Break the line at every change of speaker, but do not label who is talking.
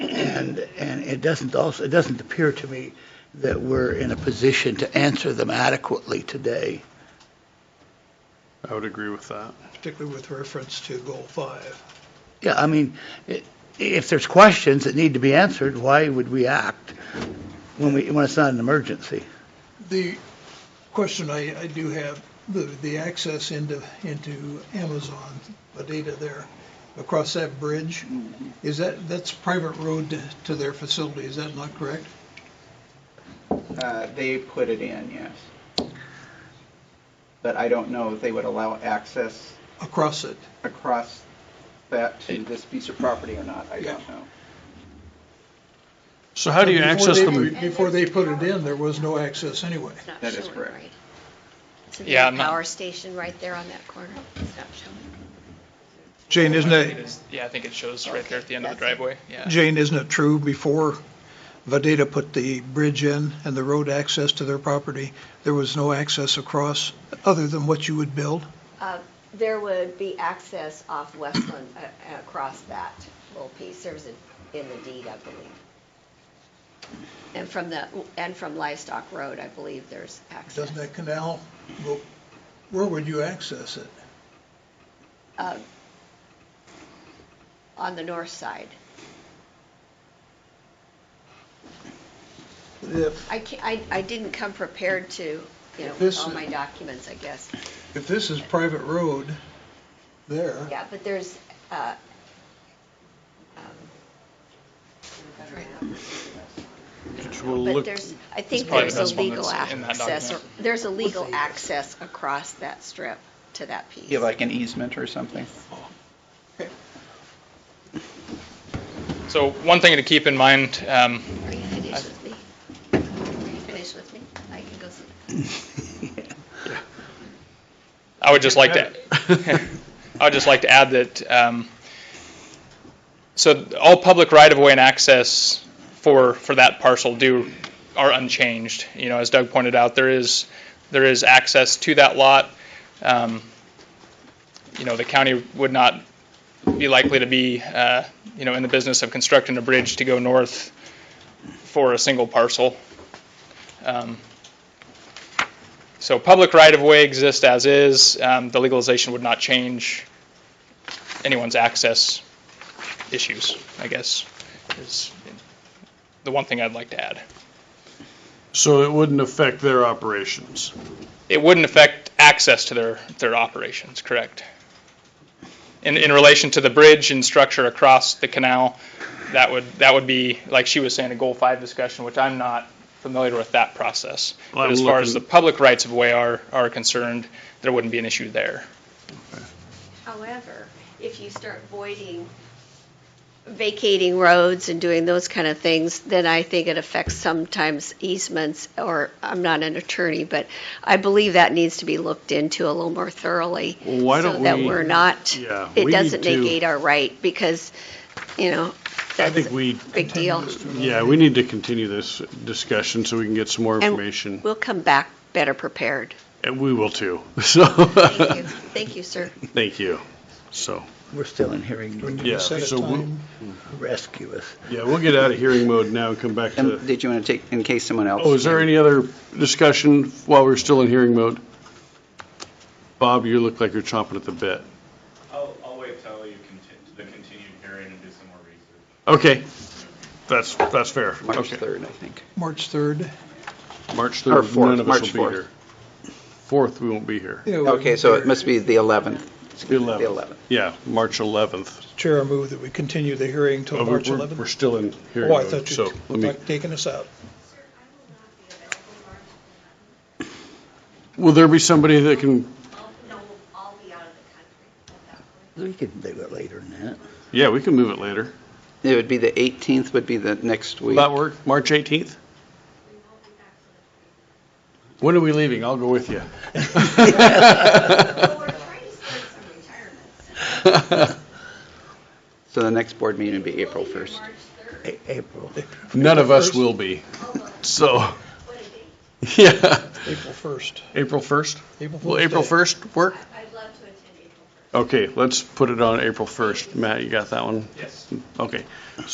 And, and it doesn't also, it doesn't appear to me that we're in a position to answer them adequately today.
I would agree with that.
particularly with reference to goal five.
Yeah, I mean, i- if there's questions that need to be answered, why would we act when we, when it's not an emergency?
The question I, I do have, the, the access into, into Amazon, the data there, across that bridge, is that, that's private road to- to their facility, is that not correct?
Uh, They put it in, yes. But I don't know if they would allow access
Across it,
across that to this piece of property or not, I don't know.
So how do you
Before
access
they-
them?
Before they put it in, there was no access anyway.
It's not
That is
showing,
correct.
right? So
Yeah,
there's
I'm
a
not-
power station right there on that corner. It's not showing.
Jane, isn't
I think
it,
it's- Yeah, I think it shows right there at the end of the
That's it.
driveway, yeah.
Jane, isn't it true before Vadeta put the bridge in and the road access to their property, there was no access across other than what you would build?
There would be access off Westland uh, across that little piece. There was a- in the deed, I believe.
And from the, and from Livestock Road, I believe there's access.
Doesn't that canal go, where would you access it?
Uh, On the north side.
If,
I ca I, I didn't come prepared to, you know, with
This
all
is-
my documents, I guess.
if this is private road there,
Yeah, but there's, uh, um,
Which will
but
look,
there's, I think
probably the
there's a
best one
legal
that's in that
access,
document.
or- there's a legal access across that strip to that piece.
You have like an easement or something?
So one thing to keep in mind, um,
Are you finished with me? Are you finished with me? I can go see.
I would just like to, I would just like to add that, um, so all public right-of-way and access for, for that parcel do, are unchanged. You know, as Doug pointed out, there is, there is access to that lot. Um, You know, the county would not be likely to be, uh, you know, in the business of constructing a bridge to go north for a single parcel. Um, so public right-of-way exists as is. Um, The legalization would not change anyone's access issues, I guess, is the one thing I'd like to add.
so it wouldn't affect their operations.
It wouldn't affect access to their, their operations, correct? In, in relation to the bridge and structure across the canal, that would, that would be, like she was saying, a Goal 5 discussion, which I'm not familiar with that process.
Well,
But
I'm
as far as the
looking-
public rights-of-way are, are concerned, there wouldn't be an issue there.
However, if you start voiding, vacating roads and doing those kind of things, then I think it affects sometimes easements, or, I'm not an attorney, but I believe that needs to be looked into a little more thoroughly.
Well, why don't
So that
we-
we're not,
Yeah,
it
we
doesn't
need to-
negate our right, because, you know,
I
that's
think
a
we,
big deal.
yeah, we need to continue this discussion so we can get some more
And
information.
We'll come back better prepared.
And we will too. So,
Thank you. Thank you, sir.
thank you. So,
We're still in hearing mode.
yeah,
set a
so, we'll-
time.
Rescue us.
yeah, we'll get out of hearing mode now and come back to.
And Did you want to take, in case someone else?
Oh, is there any other discussion while we're still in hearing mode? Bob, you look like you're chomping at the bit.
I'll, I'll wait till you continue, the continued hearing and do some more research.
Okay, that's, that's fair.
March
Okay.
3rd, I think.
March 3rd.
March
Or
3rd,
fourth,
none of
March
us will
fourth.
be here. 4th, we won't be here.
Yeah, well,
Okay, so it must be the 11th.
The
The
11th.
11th.
Yeah, March 11th.
Chair, I move that we continue the hearing
Oh,
till
we're-
March
we're- We're
11th.
still in hearing
Oh, I
mode,
thought
so
you
let me,
were taking us out.
will there be somebody that can,
No, I'll be out of the country
We can do it later than that.
yeah, we can move it later.
It would be the 18th would be the next
Will
week.
that work? March 18th? When are we leaving? I'll go with you.
We're trying to start some retirements.
So the next board meeting would be April 1st.
A- April.
None of us
First.
will be, so. Yeah,
April 1st.
April 1st?
April
Will
Fool's
April
Day.
1st work?
I'd love to attend April
Okay, let's put it on April 1st. Matt, you got that one?
Yes.
Okay.